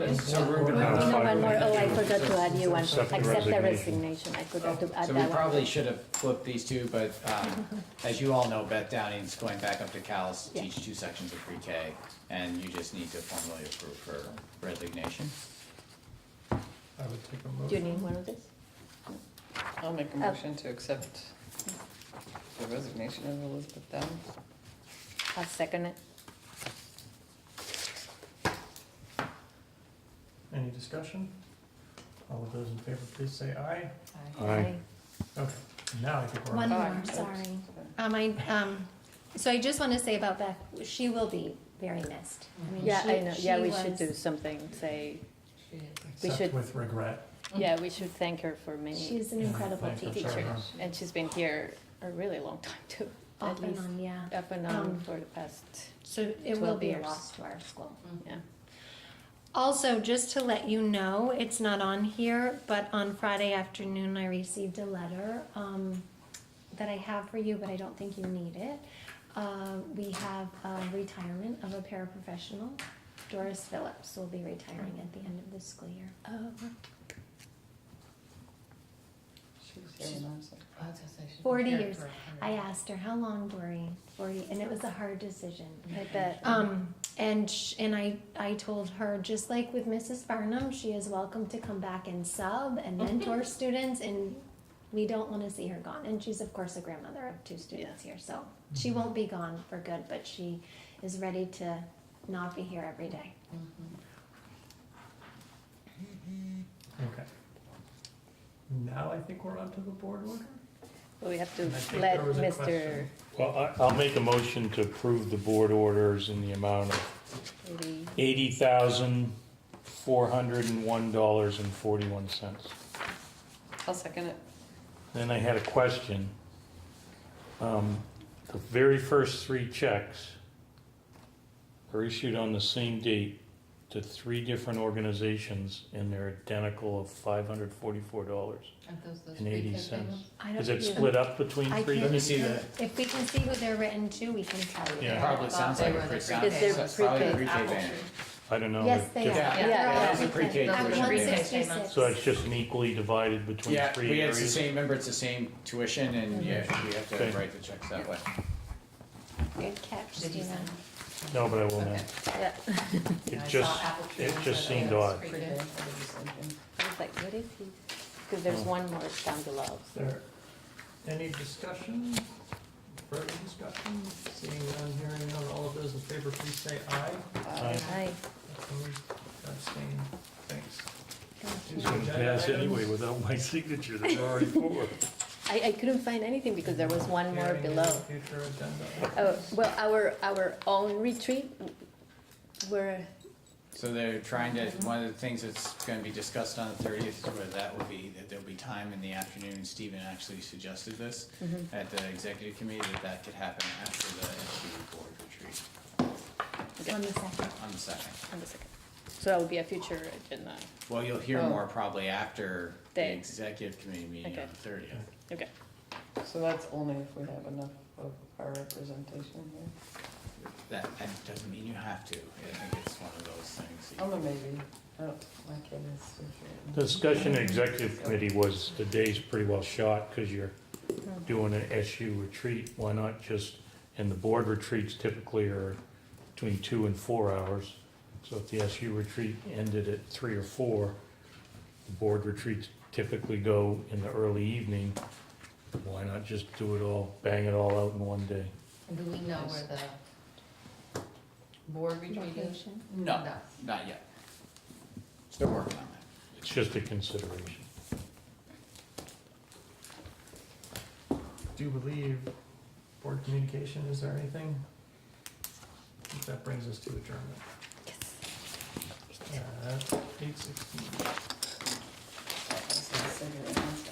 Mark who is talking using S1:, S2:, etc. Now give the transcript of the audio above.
S1: place?
S2: So we're gonna-
S1: Uh,
S3: No,
S2: five
S3: one more, oh, I
S2: resignation.
S3: forgot to add you one,
S2: Accept the
S3: accept the
S2: resignation.
S3: resignation, I forgot to add
S1: So we
S3: that one.
S1: probably should have flipped these two, but um, as you all know, Beth Downing's going back up to Cal's to
S3: Yeah.
S1: teach two sections of pre-K, and you just need to formally approve her resignation.
S2: I would take a
S3: Do you
S2: motion.
S3: need one of these?
S4: I'll make a motion to accept the resignation of Elizabeth Downs.
S3: I'll second it.
S2: Any discussion? All of those in favor, please say aye.
S3: Aye.
S2: Okay, now I think we're
S5: One
S2: on.
S5: more, sorry. Um, I, um, so I just want to say about Beth, she will be very missed. I mean,
S3: Yeah,
S5: she-
S3: I know, yeah,
S5: she
S3: we should
S5: was-
S3: do something, say,
S2: Except
S3: should-
S2: with regret.
S3: yeah, we should thank her for many,
S5: She's an incredible
S2: Thank you,
S5: teacher.
S2: Sarah.
S3: and she's been here a really long time too. at
S5: Off and
S3: least
S5: on, yeah.
S3: Up and on
S5: Um,
S3: for the past,
S5: So it will
S3: 12
S5: be a
S3: years.
S5: loss to our school.
S3: yeah.
S5: Also, just to let you know, it's not on here, but on Friday afternoon, I received a letter um, that I have for you, but I don't think you need it. Uh, we have a retirement of a paraprofessional. Doris Phillips will be retiring at the end of this school year.
S3: Oh,
S4: She was here when I was there.
S6: I was gonna say, she's been
S5: 40
S6: here
S5: years.
S6: for a hundred.
S5: I asked her, how long, Dory? 40, and it was a hard decision.
S3: I bet.
S5: Um, and sh- and I I told her just like with Mrs. Farnham, she is welcome to come back and sub and mentor students, and we don't want to see her gone. And she's of course a grandmother of two students here, so she won't be gone for good, but she is ready to not be here every day.
S2: Okay. Now I think we're on to the board order.
S3: But we have to
S2: I think
S3: let
S2: there was a
S3: Mr.
S2: question.
S7: Well, I- I'll make a motion to approve the board orders in the amount of
S3: Lee-
S7: $80,401.41.
S4: I'll second it.
S7: Then I had a question. Um, The very first three checks are issued on the same date to three different organizations, and they're identical of $544.
S6: Aren't those those
S7: And
S6: three
S7: 80
S6: kids they
S7: cents.
S6: have?
S5: I don't
S7: Is it
S5: even-
S7: split up between
S5: I
S7: three?
S5: can't
S1: me see
S5: even-
S1: that.
S5: If we can see who they're written to, we can tell you.
S7: Yeah.
S1: Probably sounds like a
S6: They were the
S1: pre-K.
S6: pre-K.
S3: Is there
S1: It's probably a
S3: pre-K?
S1: pre-K
S6: Apple
S1: banner.
S6: tree.
S7: I don't know.
S5: Yes, they are.
S1: Yeah,
S5: They're
S3: yeah,
S5: all
S3: it has a
S5: written.
S1: pre-K
S5: Not
S6: tuition.
S5: 166.
S7: So it's just an equally divided between
S1: Yeah,
S7: three
S1: we had the
S7: areas?
S1: same, remember, it's the same tuition, and yeah, we have to
S7: Okay.
S1: write the checks that way.
S5: Good catch,
S6: Did you
S5: Stephen.
S6: send?
S7: No, but I will
S6: Okay.
S7: now.
S3: Yeah,
S6: I
S3: I
S7: It
S6: saw apple
S7: just,
S6: tree
S7: it
S6: and
S7: just
S6: said, oh,
S7: seemed
S6: that's
S7: odd.
S6: pre-K.
S4: Pre-K, I did the same thing.
S3: was like, what is he? Because there's
S2: Oh.
S3: one more down below.
S2: Is there any discussion? Further discussion? Seeing none, hearing none, all of those in favor, please say aye.
S3: Aye.
S2: Opposed, abstained, thanks.
S7: It's gonna pass anyway without my signature, there's already four.
S3: I, I couldn't find anything because there was one more
S2: Hearing
S3: below.
S2: Future agenda.
S3: Oh, well, our, our own retreat, where,
S1: So they're trying to, one of the things that's gonna be discussed on the thirtieth, where that will be, that there'll be time in the afternoon, Stephen actually suggested this at the executive committee, that that could happen after the SBU board retreat
S5: On the second.
S1: on the second.
S3: on the second. So that would be a future agenda.
S1: Well, you'll hear
S4: Oh.
S1: more probably after the
S3: Day.
S1: executive committee meeting
S3: Okay.
S1: on the thirtieth.
S3: Okay.
S4: So that's only if we have enough of our representation here.
S1: That, that doesn't mean you have to, I think it's one of those things. that you-
S4: Oh, maybe. Oh, my kid is so short.
S7: Discussion in executive committee was, the day's pretty well shot, because you're doing an SU retreat, why not just, and the board retreats typically are between two and four hours, so if the SU retreat ended at three or four, the board retreats typically go in the early evening, why not just do it all, bang it all out in one day?
S6: And Do we know where the board retreat is?
S5: Location.
S1: No, not yet. Still working on that.
S7: It's just a consideration.
S2: Do you believe board communication, is there anything? I think That brings us to adjournment. Yes. Eight sixteen.
S4: I was gonna say, I was